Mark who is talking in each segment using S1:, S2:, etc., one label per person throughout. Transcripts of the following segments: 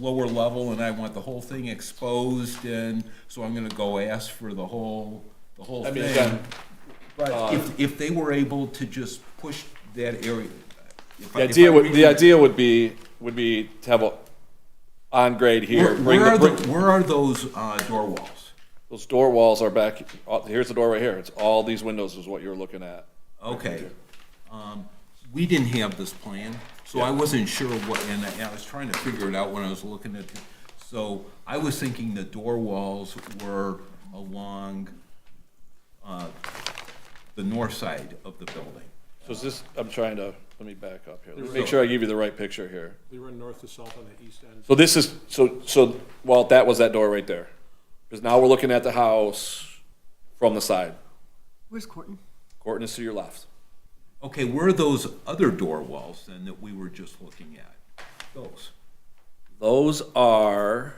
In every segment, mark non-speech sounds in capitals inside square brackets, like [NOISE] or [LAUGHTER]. S1: lower level and I want the whole thing exposed and so I'm gonna go ask for the whole, the whole
S2: I mean, uh,
S1: thing.
S2: again,
S1: But if, if they were able to just push that area. if I- if
S2: the
S1: I
S2: idea would,
S1: read
S2: the
S1: it-
S2: idea would be, would be to have a on grade here.
S1: Where,
S2: Bring
S1: where
S2: the,
S1: are
S2: bring,
S1: the, where are those, uh, door walls?
S2: those door walls are back, oh, here's the door right here. It's all these windows is what you're looking at.
S1: Okay. Um, We didn't have this plan, so I wasn't sure what, and I- and I was trying to figure it out when I was looking at, the- so I was thinking the door walls were along uh, the north side of the building.
S2: So is this, I'm trying to, let me back up here. Let's Make sure I give you the right picture here.
S3: They run north to south on the east end.
S2: So this is, so, so, well, that was that door right there. Because now we're looking at the house from the side.
S4: Where's Corton?
S2: Corton is to your left.
S1: Okay, where are those other door walls then that we were just looking at? Those.
S2: Those are,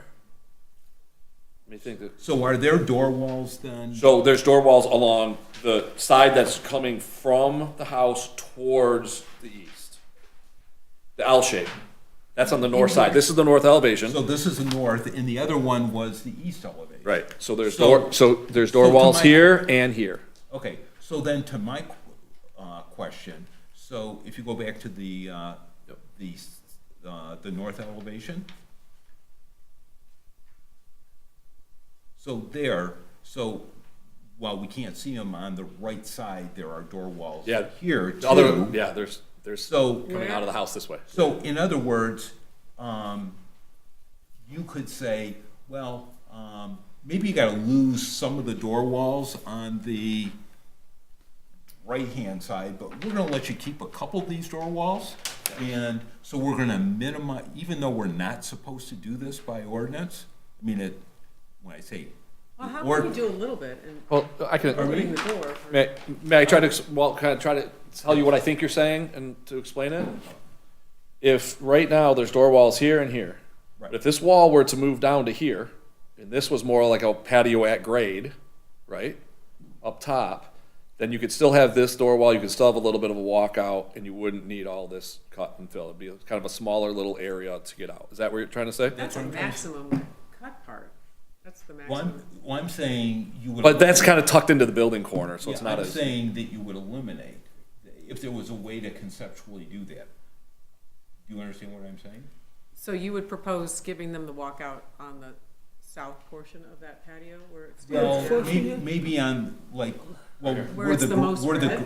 S2: let me think. that-
S1: So are there door walls then?
S2: So there's door walls along the side that's coming from the house towards the east. The L shape. That's on the north side. This is the north
S1: So
S2: elevation.
S1: this is the north, and the other one was the east elevation.
S2: Right. So there's
S1: So-
S2: door, so there's
S1: so
S2: door
S1: to
S2: walls
S1: my-
S2: here and here.
S1: Okay, so then to my qu- uh, question, so if you go back to the, uh, the, s- uh, the north elevation? So there, so while we can't see them on the right side, there are door walls
S2: Yeah.
S1: here
S2: The Other,
S1: too.
S2: yeah, there's, there's
S1: So-
S2: coming out of the house this way.
S1: So in other words, um, you could say, well, um, maybe you gotta lose some of the door walls on the right-hand side, but we're gonna let you keep a couple of these door walls. And so we're gonna minimize, even though we're not supposed to do this by ordinance, I mean, it, when I say.
S4: Well, how
S1: or-
S4: can you do a little bit and
S2: Well, I can.
S4: opening the door? for-
S2: May, may I try to, ex- well, kind of try to tell you what I think you're saying and to explain it? If right now there's door walls here and here,
S1: Right.
S2: if this wall were to move down to here, and this was more like a patio at grade, right, up top, then you could still have this door wall, you could still have a little bit of a walkout, and you wouldn't need all this cut and fill. It'd be kind of a smaller little area to get out. Is that what you're trying to say?
S4: That's a maximum cut part. That's the
S1: Well, I'm,
S4: maximum.
S1: well, I'm saying you would.
S2: But that's kind of tucked into the building corner, so it's
S1: Yeah,
S2: not
S1: I'm
S2: as.
S1: saying that you would eliminate, if there was a way to conceptually do that. Do you understand what I'm saying?
S4: So you would propose giving them the walkout on the south portion of that patio where it's.
S1: Well, may- maybe on, like, well, where
S4: it's
S1: the,
S4: the
S1: gr-
S4: most
S1: where the,
S4: red?
S1: gr-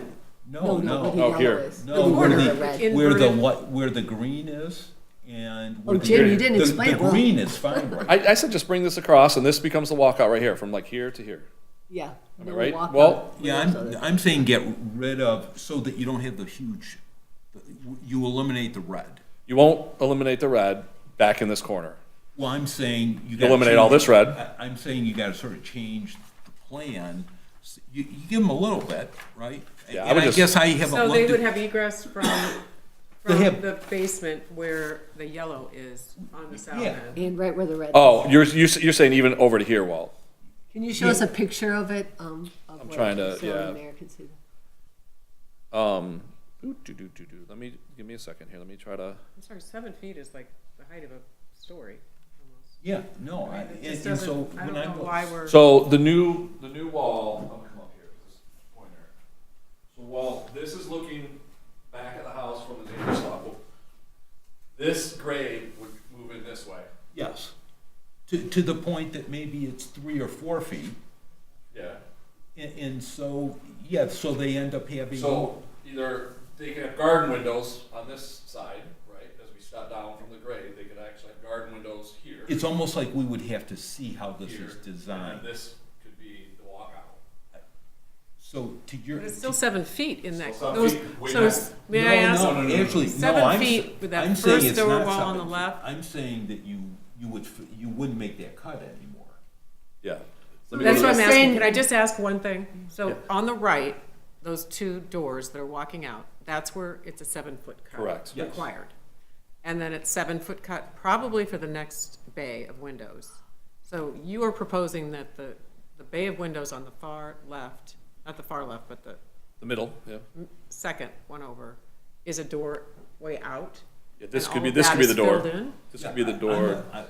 S1: no,
S5: what the
S1: no,
S2: Oh,
S5: yellow
S2: here.
S5: is.
S1: no,
S5: The
S1: where
S5: corner
S4: of
S1: the,
S4: red.
S1: where the,
S4: Inverted.
S1: what, where the green is and. where
S5: Oh,
S1: the-
S5: Jim, you didn't
S1: the-
S5: explain it
S1: The
S5: well.
S1: green is fine, right?
S2: I, I said just bring this across, and this becomes the walkout right here, from like here to here.
S5: Yeah.
S2: Am I
S5: no
S2: right?
S5: walkout.
S2: Well-
S1: [LAUGHS] Yeah, I'm, I'm saying get rid of, so that you don't have the huge, you eliminate the red.
S2: You won't eliminate the red back in this corner.
S1: Well, I'm saying you gotta
S2: Eliminate all
S1: change-
S2: this red.
S1: I- I'm saying you gotta sort of change the plan. S- You, you give them a little bit, right?
S2: Yeah, I
S1: And
S2: would
S1: I
S2: just-
S1: guess I haven't
S4: So they
S1: looked
S4: would
S1: at,
S4: have egress from,
S1: [COUGHS] They
S4: from
S1: have-
S4: the basement where the yellow is on the south
S1: Yeah.
S4: end.
S5: And right where the red.
S2: Oh, you're, you're, you're saying even over to here, Walt.
S5: Can you show us a picture of it? Um, of I'm
S2: trying to- yeah.
S5: Mayor can see that.
S2: Um, ooh, doo, doo, doo, doo. Let me, give me a second here. Let me try to,
S4: I'm sorry, seven feet is like the height of a story almost.
S1: yeah, no, I-
S4: It
S1: and
S4: just
S1: and so
S4: doesn't, I don't
S1: when
S4: know
S1: I'm.
S4: why we're.
S2: so the new, the new wall, I'm gonna come up here, this pointer. So Walt, this is looking back at the house from the neighbor's level. This grade would move in this way.
S1: Yes. To, to the point that maybe it's three or four feet,
S2: Yeah.
S1: and, and so, yeah, so they end up having.
S2: So either they can have garden windows on this side, right, as we step down from the grade, they could actually have garden windows here.
S1: It's almost like we would have to see how this
S2: here,
S1: is
S2: and then
S1: designed,
S2: This could be the walkout.
S1: so to your.
S4: But it's still seven feet in that,
S2: Still seven
S4: those,
S2: feet, way
S4: so,
S2: back.
S4: s- may
S1: No,
S4: I ask?
S1: No, no, no, actually, no,
S4: Seven
S1: I'm, s-
S4: feet with that
S1: I'm saying
S4: first
S1: it's
S4: door
S1: not
S4: wall on
S1: seven
S4: the
S1: feet.
S4: left.
S1: I'm saying that you, you would, f- you wouldn't make that cut anymore.
S2: Yeah.
S4: That's what I'm asking,
S5: Saying-
S4: can I just ask one thing? So on the right, those two doors that are walking out, that's where it's a seven-foot cut.
S2: Correct.
S1: Yes.
S4: Required. And then it's seven-foot cut probably for the next bay of windows. So you are proposing that the, the bay of windows on the far left, not the far left, but the
S2: The middle, yeah.
S4: second one over, is a doorway out?
S2: Yeah, This
S4: and
S2: could be,
S4: all of
S2: this
S4: that
S2: could be
S4: is
S2: the door.
S4: filled in?
S2: This could be the
S1: I'm
S2: door.
S1: not- I-